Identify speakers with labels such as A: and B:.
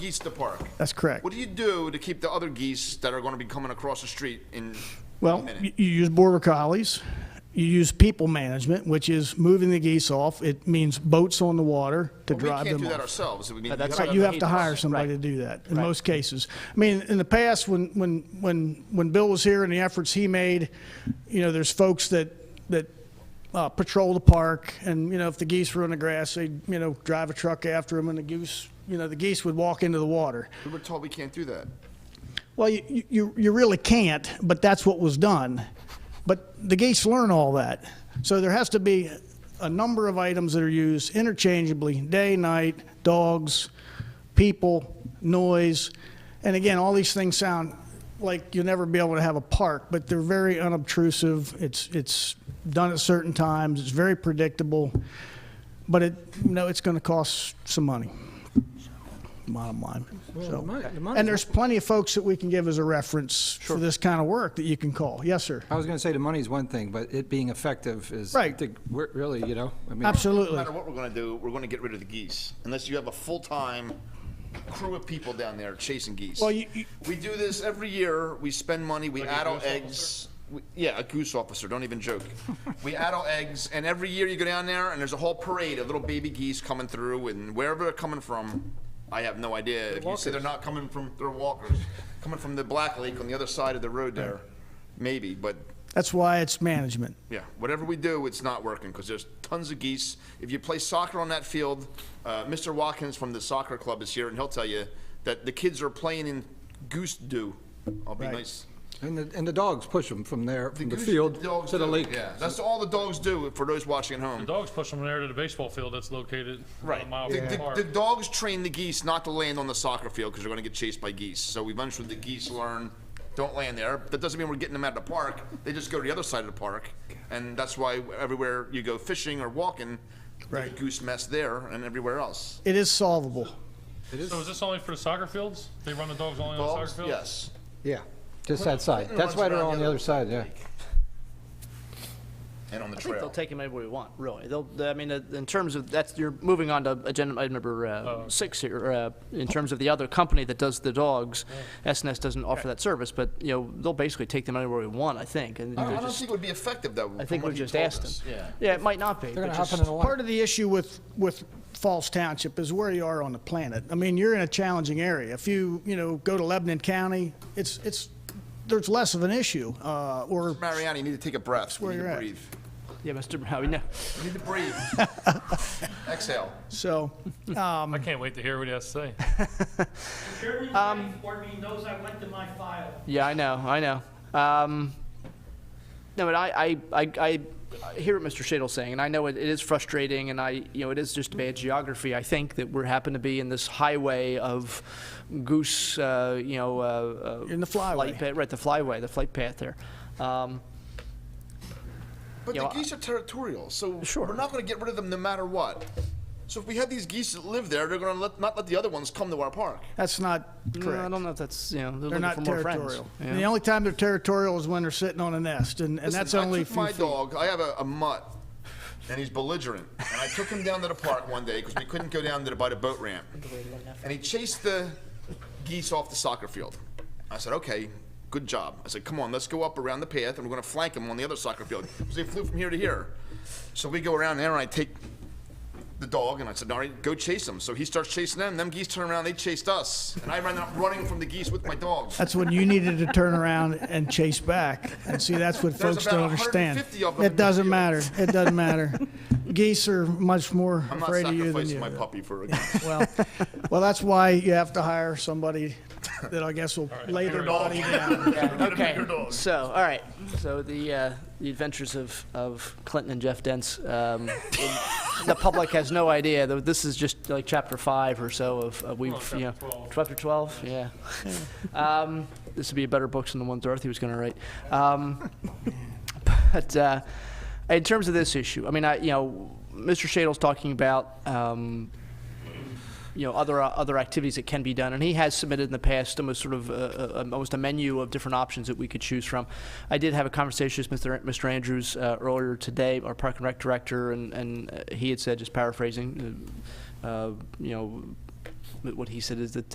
A: geese to park.
B: That's correct.
A: What do you do to keep the other geese that are going to be coming across the street in a
B: Well,
A: minute?
B: you you use border collies, you use people management, which is moving the geese off. It means boats on the water to
A: we
B: drive
A: can't
B: them
A: do that
B: off.
A: ourselves. We need-
C: that's
A: you
C: what
A: gotta-
B: You have to
C: Right.
B: hire somebody to do that, in most cases. I mean, in the past, when, when, when, when Bill was here and the efforts he made, you know, there's folks that, that uh, patrol the park, and, you know, if the geese were on the grass, they'd, you know, drive a truck after them, and the goose, you know, the geese would walk into the water.
A: We were told we can't do that.
B: Well, you, you, you really can't, but that's what was done. But the gates learn all that. So there has to be a number of items that are used interchangeably, day, night, dogs, people, noise. And again, all these things sound like you'll never be able to have a park, but they're very unobtrusive. It's, it's done at certain times, it's very predictable. But it, you know, it's gonna cost some money, bottom line. So- And there's plenty of folks that we can give as a reference for this kind of work that you can call. Yes, sir.
D: I was going to say the money's one thing, but it being effective is, I
B: Right.
D: think, we're- really, you know, I mean.
A: No
B: Absolutely.
A: matter what we're going to do, we're going to get rid of the geese unless you have a full-time crew of people down there chasing geese.
B: Well, you- you-
A: we do this every year. We spend money. We add eggs. We, yeah, a goose officer. Don't even joke. we add our eggs, and every year you go down there, and there's a whole parade of little baby geese coming through, and wherever they're coming from, I have no idea. If you say they're not coming from, they're walkers coming from the Black Lake on the other side of the road there, maybe, but.
B: That's why it's management.
A: Yeah, whatever we do, it's not working because there's tons of geese. If you play soccer on that field, uh, Mr. Watkins from the soccer club is here, and he'll tell you that the kids are playing in goose dew. I'll be
B: Right.
A: nice.
D: And the, and the dogs push them from there, from the
A: goose-
D: field
A: dogs
D: to the
A: do,
D: lake.
A: Yeah, that's all the dogs do for those watching at home.
E: The dogs push them there to the baseball field that's located about a mile
A: The,
E: from the
A: the- the
E: park.
A: dogs train the geese not to land on the soccer field because they're going to get chased by geese. So eventually the geese learn, don't land there. That doesn't mean we're getting them out of the park. They just go to the other side of the park. And that's why everywhere you go fishing or walking, there's
B: Right.
A: goose mess there and everywhere else.
B: It is solvable.
E: So is this only for the soccer fields? They run the dogs only on the
A: Dogs,
E: soccer fields?
A: yes.
D: Yeah, just that side. That's why they're on the other side, yeah.
A: And on the
F: I think they'll
A: trail.
F: take him anywhere we want, really. They'll, I mean, uh, in terms of, that's, you're moving on to agenda item number uh, six here, uh, in terms of the other company that does the dogs. SNS doesn't offer that service, but, you know, they'll basically take them anywhere we want, I think. and
A: I
F: they're
A: don't
F: just-
A: think it would be effective though.
F: I think we've just asked them. Yeah, it might not be.
D: They're
F: but
D: going to hop
F: just-
D: in the water.
B: Part of the issue with, with Falls Township is where you are on the planet. I mean, you're in a challenging area. If you, you know, go to Lebanon County, it's, it's, there's less of an issue, uh, or,
A: Mariana, you need to take a breath. You
B: where
A: need
B: you're
A: to
B: at.
A: breathe.
F: Yeah, Mr. Howie, no.
A: You need to breathe. Exhale.
B: so.
E: I can't wait to hear what he has to say.
G: Chairman, Wright, board meeting knows I went to my file.
F: Yeah, I know, I know. Um, no, but I, I, I, I hear what Mr. Shadle saying, and I know it, it is frustrating, and I, you know, it is just bad geography. I think that we're happen to be in this highway of goose, uh, you know, uh, uh,
B: In the flyway.
F: flight path, right, the flyway, the flight path there. Um,
A: But
F: You
A: the
F: know,
A: geese are territorial, so
F: Sure.
A: we're not going to get rid of them no matter what. So if we have these geese that live there, they're going to let, not let the other ones come to our park.
B: That's not
F: no, I
B: correct.
F: don't know if that's, you know, they're,
B: They're
F: looking
B: not
F: for more friends.
B: territorial.
F: you
B: And
F: know?
B: the only time they're territorial is when they're sitting on a nest, and, and that's
A: Listen, I
B: only a
A: took my
B: few feet.
A: dog. I have a, a mutt, and he's belligerent. And I took him down to the park one day because we couldn't go down to the, by the boat ramp. And he chased the geese off the soccer field. I said, "Okay, good job." I said, "Come on, let's go up around the path, and we're going to flank him on the other soccer field." Because they flew from here to here. So we go around there, and I take the dog, and I said, "All right, go chase him." So he starts chasing them. Them geese turn around, they chased us, and I ran up running from the geese with my dog.
B: That's when you needed to turn around and chase back. And see, that's what
A: There's
B: folks don't
A: about
B: understand.
A: 150 of them in the
B: It doesn't
A: field.
B: matter. It doesn't matter. Geese are much more
A: I'm not
B: afraid of you than
A: sacrificing
B: you.
A: my puppy for a goose.
B: Well, well, that's why you have to hire somebody that I guess will lay their body down.
F: Okay, so, all right, so the, uh, the adventures of, of Clinton and Jeff Dents, um, in- the public has no idea, though this is just like chapter five or so of, of we've, you know.
E: chapter 12.
F: Chapter twelve, yeah. Um, this would be a better book than the one Dorothy was gonna write. Um, but, uh, in terms of this issue, I mean, I, you know, Mr. Shadle's talking about, um, you know other uh, other activities that can be done, and he has submitted in the past almost sort of uh, uh, almost a menu of different options that we could choose from. I did have a conversation with Mr. Mr. Andrews uh, earlier today, our Park and Rec director, and and uh, he had said, just paraphrasing, uh, uh, you know, what he said is that